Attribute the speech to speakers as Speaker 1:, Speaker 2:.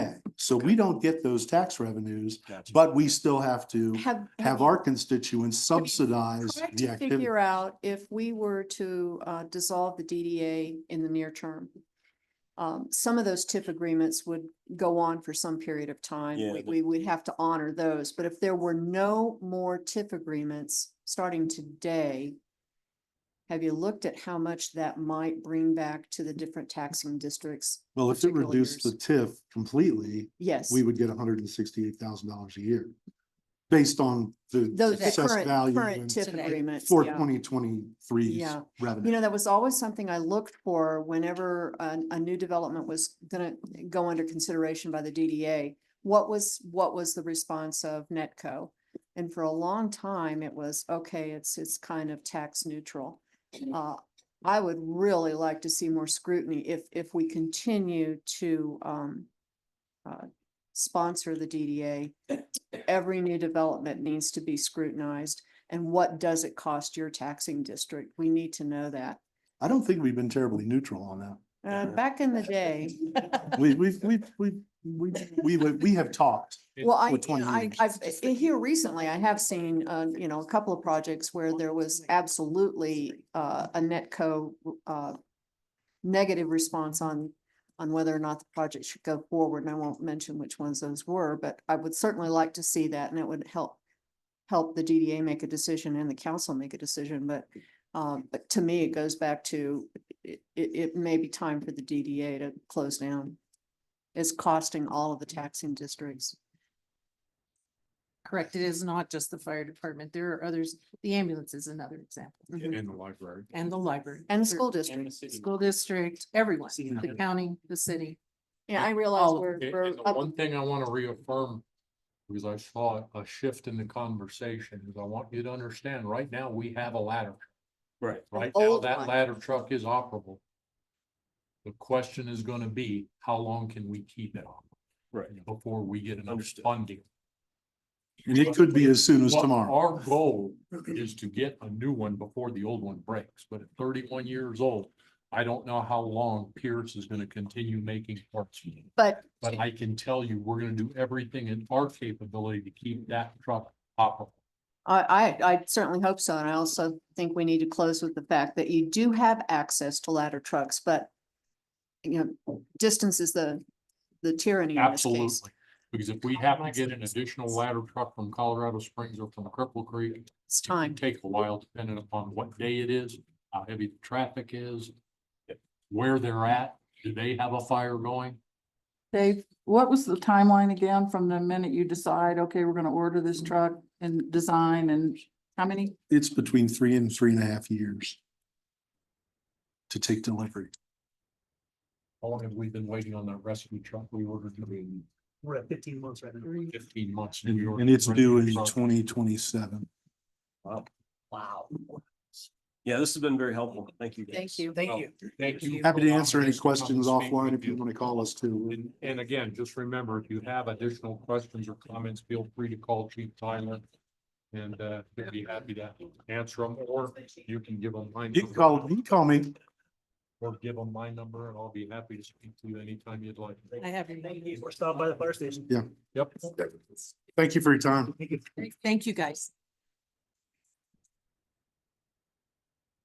Speaker 1: So we don't get those tax revenues,
Speaker 2: Gotcha.
Speaker 1: but we still have to
Speaker 3: Have.
Speaker 1: have
Speaker 3: you
Speaker 1: our constituents subsidize
Speaker 3: tried
Speaker 1: the
Speaker 3: to
Speaker 1: activity.
Speaker 3: Figure out if we were to uh, dissolve the DDA in the near term. Um, some of those TIF agreements would go on for some period of time.
Speaker 2: Yeah,
Speaker 3: We,
Speaker 2: the-
Speaker 3: we would have to honor those, but if there were no more TIF agreements starting today, have you looked at how much that might bring back to the different taxing districts?
Speaker 1: Well, if it
Speaker 3: particular
Speaker 1: reduced the
Speaker 3: years.
Speaker 1: TIF completely,
Speaker 3: Yes,
Speaker 1: we would get hundred and sixty-eight thousand dollars a year. Based on the
Speaker 3: those the
Speaker 1: assessed
Speaker 3: current,
Speaker 1: value
Speaker 3: current
Speaker 1: and
Speaker 3: TIF
Speaker 4: Today.
Speaker 3: agreements.
Speaker 1: for
Speaker 3: yeah.
Speaker 1: twenty twenty-three
Speaker 3: Yeah. You
Speaker 1: revenue.
Speaker 3: know, that was always something I looked for whenever a, a new development was gonna go under consideration by the DDA. What was, what was the response of Netco? And for a long time, it was, okay, it's, it's kind of tax neutral. Uh, I would really like to see more scrutiny if, if we continue to, um, uh, sponsor the DDA. Every new development needs to be scrutinized. And what does it cost your taxing district? We need to know that.
Speaker 1: I don't think we've been terribly neutral on that.
Speaker 3: Uh,
Speaker 2: Yeah.
Speaker 3: back in the day,
Speaker 1: We, we've, we've, we've, we, we, we have talked.
Speaker 3: well, I,
Speaker 1: For 20
Speaker 3: I,
Speaker 1: years.
Speaker 3: I've, uh, here recently, I have seen, uh, you know, a couple of projects where there was absolutely, uh, a netco, uh, negative response on, on whether or not the project should go forward, and I won't mention which ones those were, but I would certainly like to see that, and it would help, help the DDA make a decision and the council make a decision, but, um, but to me, it goes back to, it, it, it may be time for the DDA to close down. It's costing all of the taxing districts.
Speaker 4: Correct, it is not just the fire department, there are others, the ambulance is another example, Mm-hmm.
Speaker 3: Mhm.
Speaker 5: the library.
Speaker 4: and the library.
Speaker 3: And the
Speaker 4: There-
Speaker 3: school district.
Speaker 4: School district, everyone,
Speaker 2: Seen
Speaker 4: the
Speaker 2: it.
Speaker 4: county, the city.
Speaker 3: Yeah, I realize
Speaker 4: all of
Speaker 3: we're,
Speaker 5: And-
Speaker 3: we're
Speaker 5: Oh, and the
Speaker 3: up-
Speaker 5: one thing I wanna reaffirm, because I saw a shift in the conversation, is I want you to understand, right now, we have a ladder.
Speaker 2: Right.
Speaker 5: Right now,
Speaker 3: old one.
Speaker 5: that ladder truck is operable. The question is gonna be, how long can we keep it on
Speaker 2: Right.
Speaker 5: before we get enough
Speaker 2: Understood.
Speaker 5: funding?
Speaker 1: And it could be as soon as
Speaker 5: What
Speaker 1: tomorrow.
Speaker 5: Our goal is to get a new one before the old one breaks, but at thirty-one years old, I don't know how long Pierce is gonna continue making parts.
Speaker 3: but
Speaker 5: But I can tell you, we're gonna do everything in our capability to keep that truck operable.
Speaker 3: I, I, I certainly hope so. And I also think we need to close with the fact that you do have access to ladder trucks, but you know, distance is the, the tyranny in this case.
Speaker 5: Absolutely. Because if we have to get an additional ladder truck from Colorado Springs or from Cripple Creek, it
Speaker 3: It's
Speaker 5: can
Speaker 3: time.
Speaker 5: take a while depending upon what day it is, how heavy the traffic is, where they're at, do they have a fire going?
Speaker 6: Dave, what was the timeline again from the minute you decide, okay, we're gonna order this truck and design and how many?
Speaker 1: It's between three and three and a half years to take delivery.
Speaker 5: How long have we been waiting on that rescue truck we ordered in
Speaker 2: We're at fifteen months right now.
Speaker 5: fifteen months?
Speaker 1: And
Speaker 5: We ordered
Speaker 1: and it's
Speaker 5: the
Speaker 1: due in
Speaker 5: rescue truck.
Speaker 1: twenty twenty-seven.
Speaker 2: Wow. Yeah, this has been very helpful. Thank you.
Speaker 3: Thank you.
Speaker 5: Thank you. Thank you.
Speaker 1: Happy
Speaker 5: for
Speaker 1: to answer any
Speaker 5: allowing us come and
Speaker 1: questions
Speaker 5: speak
Speaker 1: offline
Speaker 5: with
Speaker 1: if you want to call us too.
Speaker 5: And, and again, just remember, if you have additional questions or comments, feel free to call Chief Tyler. And, uh, he'd be happy to answer them, or you can give them my.
Speaker 1: You can call, you can call me.
Speaker 5: Or give them my number, and I'll be happy to speak to you anytime you'd like.
Speaker 4: I have. your
Speaker 2: Or stop by the fire station.
Speaker 5: Yep.
Speaker 1: Thank you for your time.
Speaker 4: Thank you, guys.